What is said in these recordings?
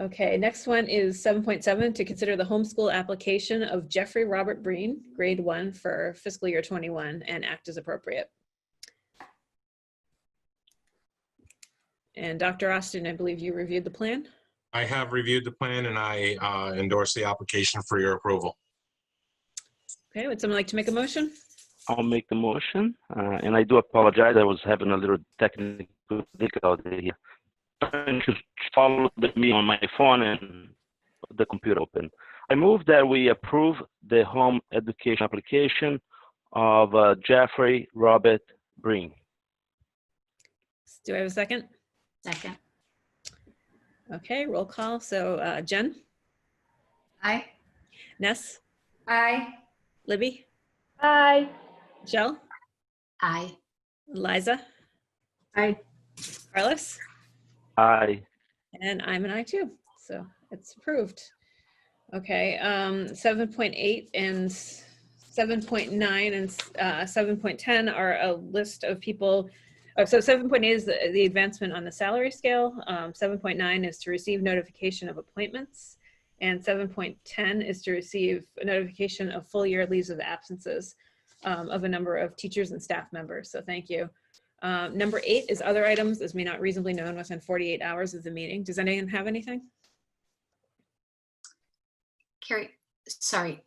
Okay, next one is 7.7, to consider the homeschool application of Jeffrey Robert Breen, grade one for fiscal year 21, and act as appropriate. And Dr. Austin, I believe you reviewed the plan. I have reviewed the plan and I uh, endorse the application for your approval. Okay, would someone like to make a motion? I'll make the motion, uh, and I do apologize. I was having a little technical difficulty here. Trying to follow with me on my phone and the computer open. I move that we approve the home education application of uh, Jeffrey Robert Breen. Do I have a second? Second. Okay, roll call. So uh, Jen, Aye. Ness, Aye. Libby, Aye. Jill, Aye. Liza, Aye. Carlos, Aye. and I'm an I too. So it's approved. Okay, um, 7.8 and s- 7.9 and uh, 7.10 are a list of people. Oh, so 7.8 is the, the advancement on the salary scale. Um, 7.9 is to receive notification of appointments. And 7.10 is to receive a notification of full year leaves of absences um, of a number of teachers and staff members. So thank you. Um, Number eight is other items as may not reasonably known within 48 hours of the meeting. Does anyone have anything? Carrie, sorry.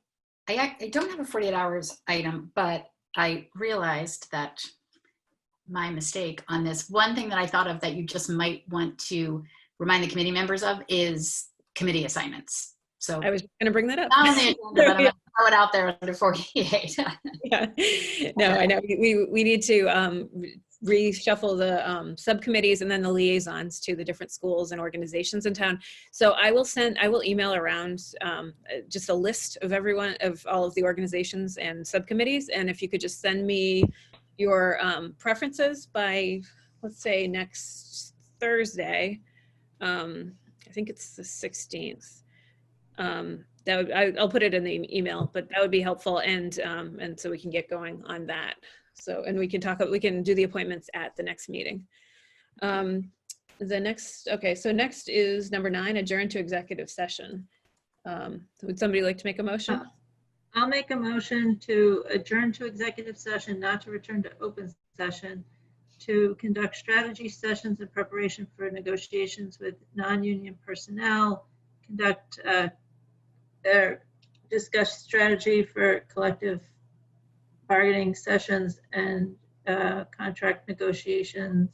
I, ac- I don't have a 48 hours item, but I realized that my mistake on this. One thing that I thought of that you just might want to remind the committee members of is committee assignments. So I was going to bring that up. not on the agenda, but I'm gonna throw it out there under 48. Yeah. No, I know. We- We, we need to um, reshuffle the um, subcommittees and then the liaisons to the different schools and organizations in town. So I will send, I will email around um, uh, just a list of everyone, of all of the organizations and subcommittees. And if you could just send me your um, preferences by, let's say, next Thursday. Um, I think it's the 16th. Um, that would, I, I'll put it in the e- email, but that would be helpful. And, um, and so we can get going on that. So, and we can talk, we can do the appointments at the next meeting. Um, the next, okay, so next is number nine, adjourn to executive session. Um, would somebody like to make a motion? I'll make a motion to adjourn to executive session, not to return to open session, to conduct strategy sessions in preparation for negotiations with non-union personnel, conduct, uh, or discuss strategy for collective bargaining sessions and uh, contract negotiations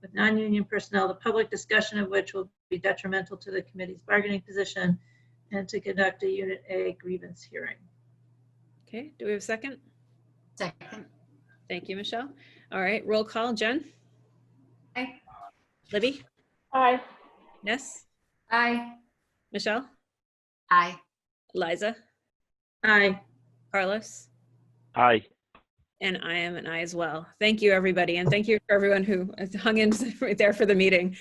with non-union personnel, the public discussion of which will be detrimental to the committee's bargaining position, and to conduct a Unit A grievance hearing. Okay, do we have a second? Second. Thank you, Michelle. All right, roll call, Jen? Aye. Libby? Aye. Ness? Aye. Michelle? Aye. Liza? Aye. Carlos? Aye. And I am an I as well. Thank you, everybody. And thank you for everyone who hung in right there for the meeting.